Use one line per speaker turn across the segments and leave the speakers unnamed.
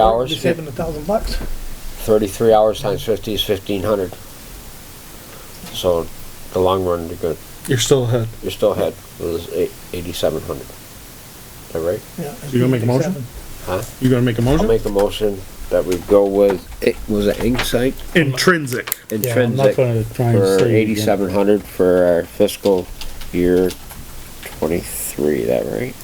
hours,
saving a thousand bucks.
thirty-three hours times fifty is fifteen hundred. So, the long run, you're good,
You're still ahead.
you're still ahead, it was eighty-seven hundred. Is that right?
Yeah.
You gonna make a motion?
Huh?
You gonna make a
I'll
motion?
make a motion that we go with, it was an ink site
Intrinsic.
Yeah, I'm not
intrinsic
gonna try and
for
say it again.
eighty-seven hundred for our fiscal year twenty-three, is that right?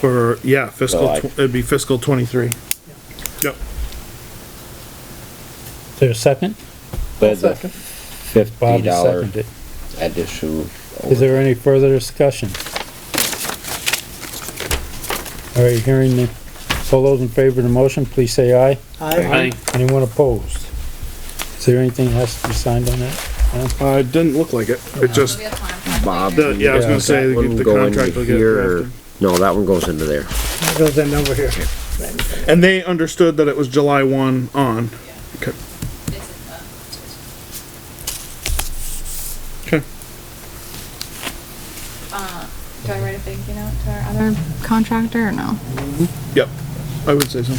For, yeah, fiscal,
July.
tw- it'd be fiscal twenty-three. Yep.
Is there a second?
But the
Second.
fifty
Bob
dollar
seconded.
addition.
Is there any further discussion? All right, hearing the, all those in favor of the motion, please say aye.
I,
Anyone opposed? Is there anything that has to be signed on that?
Uh, it didn't look like it. It just,
Bob.
the- yeah, I was gonna say,
That one
the
go into
contract will get
here.
drafted.
No, that one goes into there.
that goes in over here.
And they understood that it was July one on. Okay.
um,
Okay.
Do I write a thank you note to our other contractor or no?
Yep. I would say so.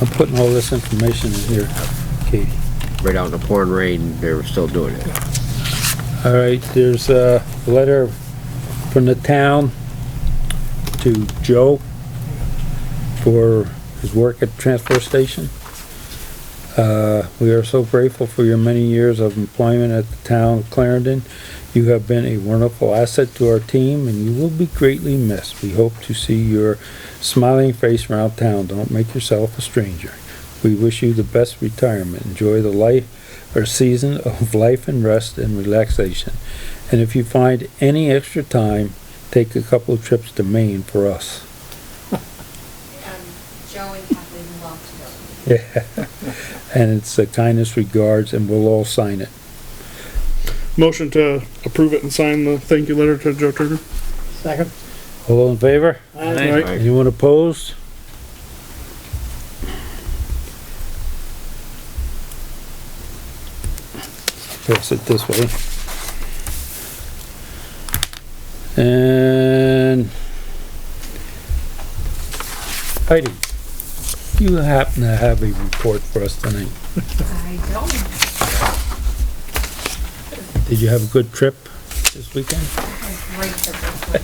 I'm putting all this information in here, Katie.
Right out in the pouring rain, they were still doing it.
All right, there's a letter from the town to Joe for his work at the transfer station. Uh, we are so grateful for your many years of employment at the town of Clarendon. You have been a wonderful asset to our team and you will be greatly missed. We hope to see your smiling face around town. Don't make yourself a stranger. We wish you the best retirement. Enjoy the life or season of life and rest and relaxation. And if you find any extra time, take a couple of trips to Maine for us.
Joe and Kathleen love to go.
And it's the kindest regards, and we'll all sign it.
Motion to approve it and sign the thank you letter to Joe Turner.
Second.
All those in favor?
Aye.
Right.
Anyone opposed? Pass it this way. And Heidi, you happen to have a report for us tonight.
I don't.
Did you have a good trip this weekend?
Great for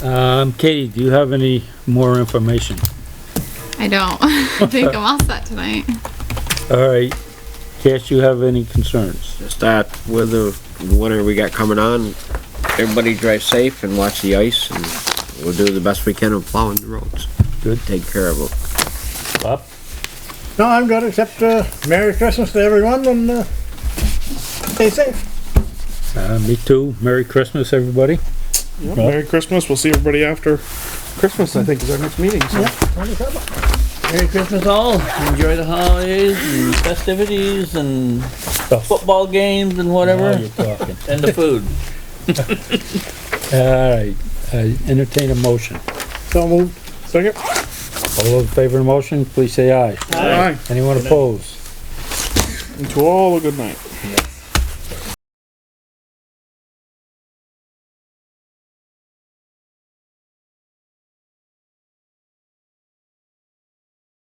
this one.
Um, Katie, do you have any more information?
I don't. I think I'm all set tonight.
All right, Cash, you have any concerns?
Start with the winter we got coming on. Everybody drive safe and watch the ice and we'll do the best we can of plowing the roads.
Good.
Take care of them.
Bob?
No, I'm good, except, uh, Merry Christmas to everyone and, uh, stay safe.
Uh, me too. Merry Christmas, everybody.
Merry Christmas. We'll see everybody after Christmas, I think, is our next meeting, so.
Merry Christmas all.
enjoy the holidays and festivities and football games and
Now
whatever,
you're talking.
and the food.
All right, I entertain a motion.
So moved.
Second?
All those in favor of the motion, please say aye.
Aye.
Anyone opposed?
And to all a good night.